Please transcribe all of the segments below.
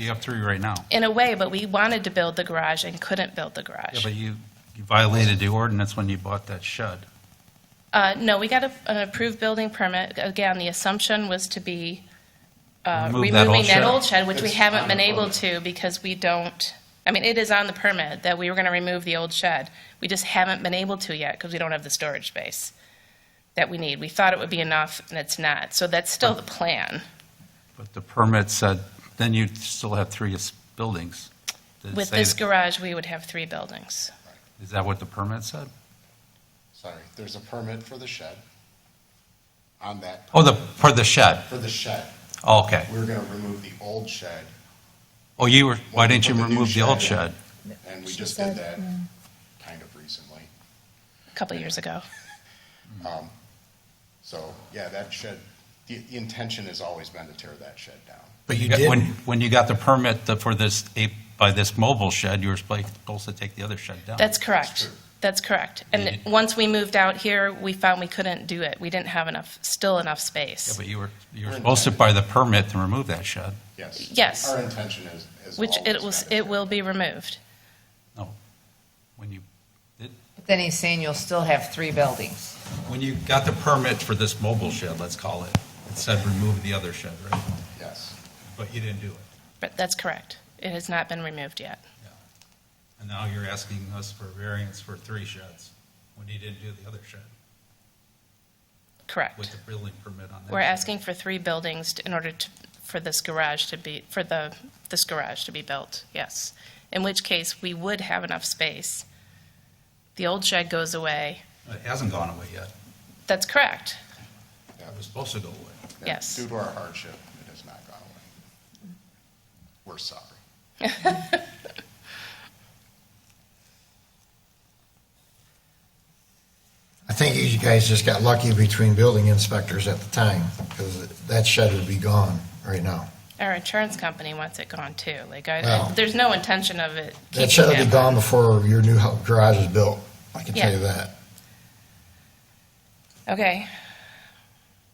You have three right now. in a way, but we wanted to build the garage and couldn't build the Yeah, garage. but you you violated the ordinance when you bought that shed. Uh, no, we got a, an approved building permit. Again, the assumption was to be uh, Remove that removing old that shed. old shed, which we It's haven't on been the able permit. to because we don't, I mean, it is on the permit that we were going to remove the old shed. We just haven't been able to yet because we don't have the storage space that we need. We thought it would be enough, and it's not. So that's still the plan But the permit said, then you'd still have three s- buildings. Did it with say this that- garage, we would have three buildings. Is that what the permit said? Sorry, there's a permit for the shed on that, Oh, the, for the shed. for the shed. Oh, Okay. We were gonna remove the old shed, Oh, you were, why Well, didn't we you put the new remove the old shed shed? and we She just did said, that yeah. kind of recently. A couple years ago. Um, So, yeah, that shed, the the intention has always been to tear that shed down. But you got- did. When, when you got the permit the- for this, eight- by this mobile shed, you were supposed supposed to take the other shed down. That's That's correct. true. That's correct. Yeah, And you- once we moved out here, we found we couldn't do it. We didn't have enough, still enough Yeah, space. but you were, you were supposed to buy the permit to remove that shed. Yes. Yes. Our intention is, is Which it always was, been to it tear will be removed. When you, Then he's saying you'll still have three buildings. when you got the permit for this mobile shed, let's call it, it said remove the other shed, right? down. Yes. But you didn't do it. But that's correct. It has not been removed yet. And now you're asking us for variance for three sheds when you didn't do the other shed with Correct. the building permit on that. We're shed. asking for three buildings to- in order to, for this garage to be, for the, this garage to be built, yes. In which case, we would have enough space. The old shed goes away. It hasn't gone away yet. That's correct. Yeah, It was supposed to go away. yeah. Yes. Due to our hardship, it has not gone away. We're sorry. I think you guys just got lucky between building inspectors at the time, because that shed would be gone right now. Our insurance company wants it gone too. Like, I- I, Wow. there's no intention of it That keeping shed will be it. gone before your new hou- garage is built, I can tell you Yeah. that. Okay.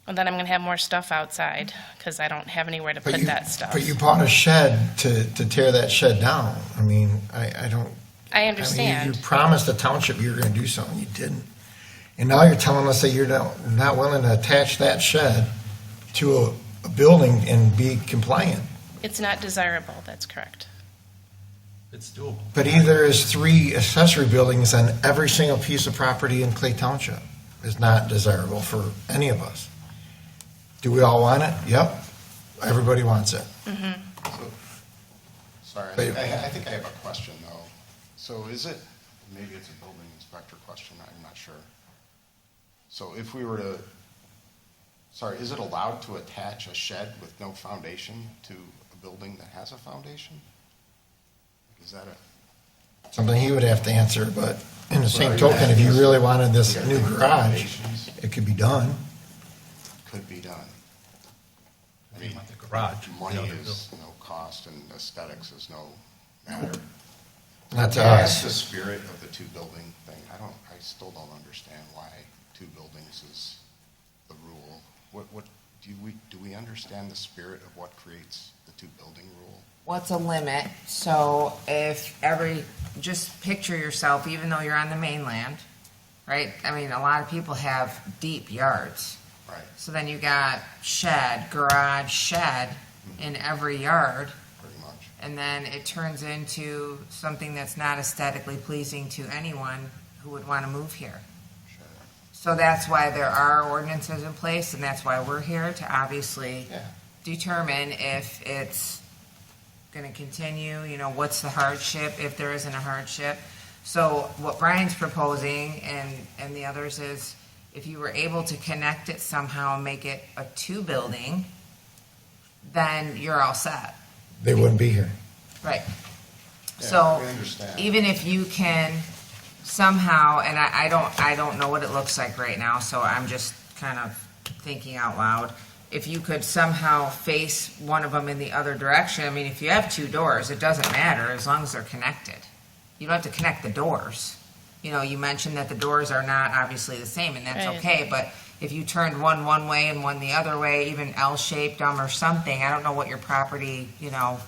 Well, then I'm gonna have more stuff outside, because I don't have anywhere to But put you- that stuff. But you bought a shed to, to tear that shed down. I mean, I, I don't. I I mean, you- You understand. promised the township you were gonna do something, you didn't. And now you're telling us that you're not, not willing to attach that shed to a, a building and be compliant. It's not desirable, that's correct. It's doable. But either is three accessory buildings on every single piece of property in Clay Township is not desirable for any of us. Do we all want it? Yep. Everybody wants it. So, Sorry, I, But- I I think I have a question, though. So is it, maybe it's a building inspector question, I'm not sure. So if we were to, sorry, is it allowed to attach a shed with no foundation to a building that has a foundation? Is that a, Something he would have to answer, but in the same Right. token, if you really wanted this new Yeah. garage, it could be done. could be done? I You mean, want the garage. Money the other is no cost and aesthetics is no matter. Not to Yeah, That's us. the spirit of the two building thing. I don't, I still don't understand why two buildings is the rule. What, what, do we, do we understand the spirit of what creates the two building rule? What's a limit? So if every, just picture yourself, even though you're on the mainland, right? I mean, a lot of people have deep yards. Right, So then you got shed, garage, shed in every yard. pretty much. And then it turns into something that's not aesthetically pleasing to anyone who would want to move here. Sure. So that's why there are ordinances in place, and that's why we're here to obviously Yeah. determine if it's going to continue, you know, what's the hardship, if there isn't a hardship. So what Brian's proposing and, and the others is if you were able to connect it somehow and make it a two-building, then you're all set. They wouldn't be here. Right. Yeah, So we understand. even if you can somehow, and I, I don't, I don't know what it looks like right now, so I'm just kind of thinking out loud. If you could somehow face one of them in the other direction, I mean, if you have two doors, it doesn't matter as long as they're connected. You don't have to connect the doors. You know, you mentioned that the doors are not obviously the same and that's Right. okay, but if you turned one one way and one the other way, even L-shaped them or something, I don't know what your property, you know,